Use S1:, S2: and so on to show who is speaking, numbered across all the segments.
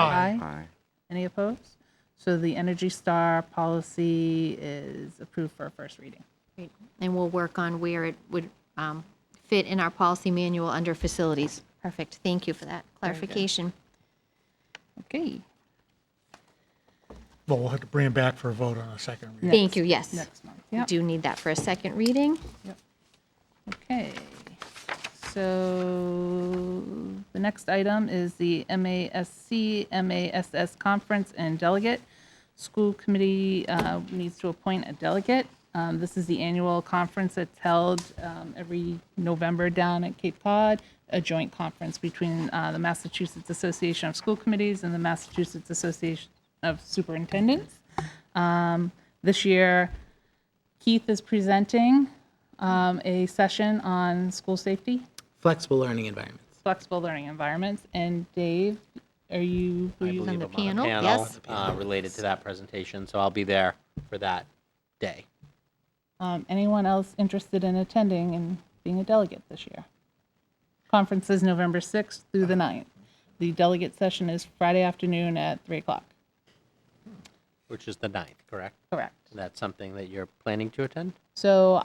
S1: Aye.
S2: Aye.
S1: Any opposed? So the Energy Star policy is approved for a first reading.
S3: Great. And we'll work on where it would um, fit in our policy manual under facilities. Perfect. Thank you for that clarification.
S1: Okay,
S4: Well, we'll have to bring it back for a vote on a second reading.
S3: Thank you, yes.
S1: next month.
S3: We
S1: Yep,
S3: do need that for a second reading.
S1: okay. So the next item is the MASC, MASS Conference and Delegate. School Committee uh, needs to appoint a delegate. Um, This is the annual conference that's held um, every November down at Cape Cod, a joint conference between uh, the Massachusetts Association of School Committees and the Massachusetts Association of Superintendents. Um, This year, Keith is presenting um, a session on school safety,
S5: Flexible learning environments.
S1: flexible learning environments. And Dave, are you? will
S6: I
S1: you-
S6: believe
S3: the
S6: I'm on
S3: panel,
S6: a panel
S3: yes.
S6: uh, related to that presentation, so I'll be there for that day.
S1: um, Anyone else interested in attending and being a delegate this year? Conference is November 6th through the 9th. The delegate session is Friday afternoon at 3 o'clock.
S6: Which is the ninth, correct?
S1: Correct.
S6: That's something that you're planning to attend?
S1: So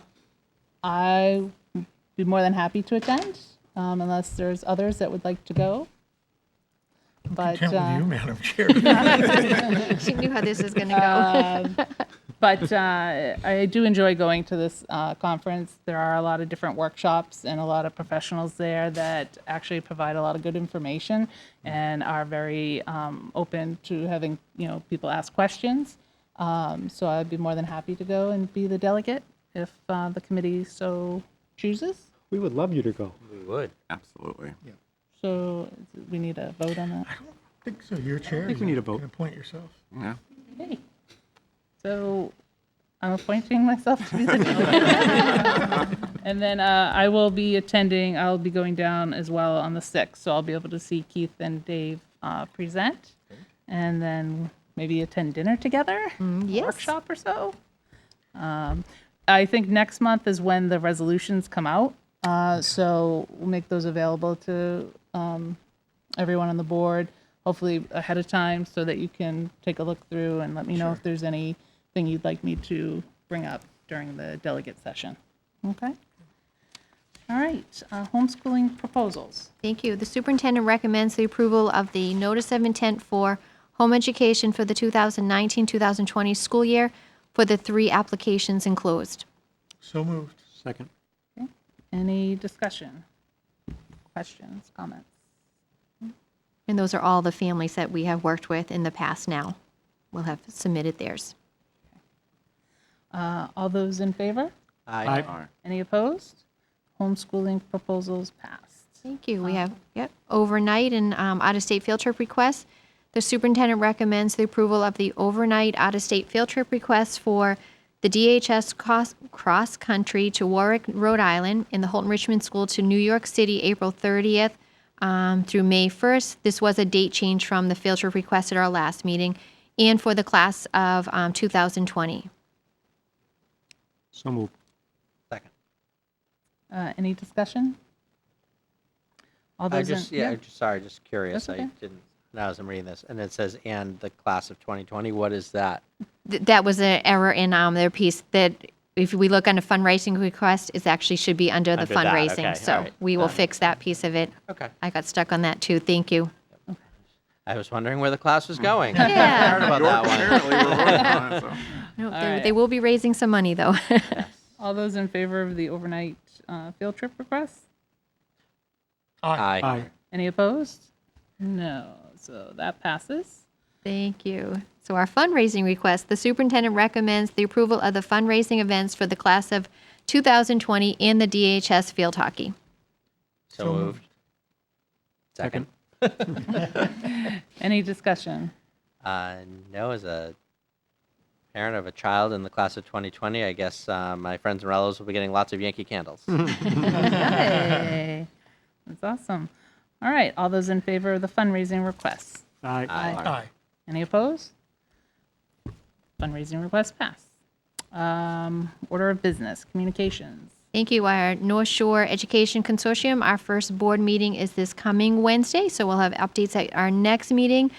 S1: I would be more than happy to attend um, unless there's others that would like to go. But.
S4: Can't
S1: uh,
S4: with you, Madam Chair.
S3: She knew how this is going to go.
S1: but uh, I do enjoy going to this uh, conference. There are a lot of different workshops and a lot of professionals there that actually provide a lot of good information and are very um, open to having you know people ask questions. Um, so I'd be more than happy to go and be the delegate if uh, the committee so chooses.
S7: We would love you to go.
S6: We would.
S2: Absolutely.
S1: So we need a vote on that.
S4: I think so, your chair. I
S7: think we need a vote.
S4: You can appoint yourself.
S2: Yeah.
S1: Okay. So I'm appointing myself to be the delegate. And then uh, I will be attending, I'll be going down as well on the 6th, so I'll be able to see Keith and Dave uh, present. And then maybe attend dinner together?
S3: yes.
S1: Workshop or so? Um, I think next month is when the resolutions come out, uh, so we'll make those available to everyone on the board, hopefully ahead of time, so that you can take a look through and let me know if there's anything you'd like me to bring up during the delegate session. Okay? All right, uh, homeschooling proposals.
S3: Thank you. The superintendent recommends the approval of the notice of intent for home education for the 2019-2020 school year for the three applications enclosed.
S4: So moved.
S7: Second.
S1: Any discussion? Questions, comments?
S3: And those are all the families that we have worked with in the past now will have submitted theirs.
S1: Uh, All those in favor?
S6: I
S2: Aye.
S1: Any opposed? Homeschooling proposals passed.
S3: Thank you. We have, yep, overnight and um, out-of-state field trip requests. The superintendent recommends the approval of the overnight out-of-state field trip requests for the DHS cross- cross-country to Warwick, Rhode Island, and the Holton Richmond School to New York City, April 30th um, through May 1st. This was a date change from the field trip request at our last meeting, and for the class of um, 2020.
S7: So moved.
S6: Second.
S1: Uh, Any discussion? All
S6: I
S1: those in?
S6: just, yeah, I just, sorry, just curious.
S1: That's
S6: I
S1: okay.
S6: didn't, now as I'm reading this, and it says, and the class of 2020, what is that?
S3: Th- that was an error in um, their piece that if we look under fundraising request, it actually should be under the
S6: Under that,
S3: fundraising.
S6: okay, all
S3: so
S6: right.
S3: we will fix that piece of it.
S6: Okay.
S3: I got stuck on that too. Thank you.
S6: I was wondering where the class was going.
S3: Yeah.
S6: Heard about that
S2: Apparently,
S6: one.
S2: we're voting on it, so.
S3: No,
S1: All
S3: they,
S1: right.
S3: they will be raising some money though.
S1: All those in favor of the overnight uh, field trip request?
S6: Aye.
S7: Aye.
S1: Any opposed? No, so that passes.
S3: Thank you. So our fundraising request, the superintendent recommends the approval of the fundraising events for the class of 2020 and the DHS field hockey.
S6: So moved. Second.
S1: Any discussion?
S6: Uh, no, as a parent of a child in the class of 2020, I guess uh, my friends and relatives will be getting lots of Yankee candles.
S1: Hey, that's awesome. All right, all those in favor of the fundraising requests?
S7: Aye.
S4: Aye.
S1: Any opposed? Fundraising request pass. Um, Order of business, communications.
S3: Thank you. Our North Shore Education Consortium, our first board meeting is this coming Wednesday, so we'll have updates at our next meeting.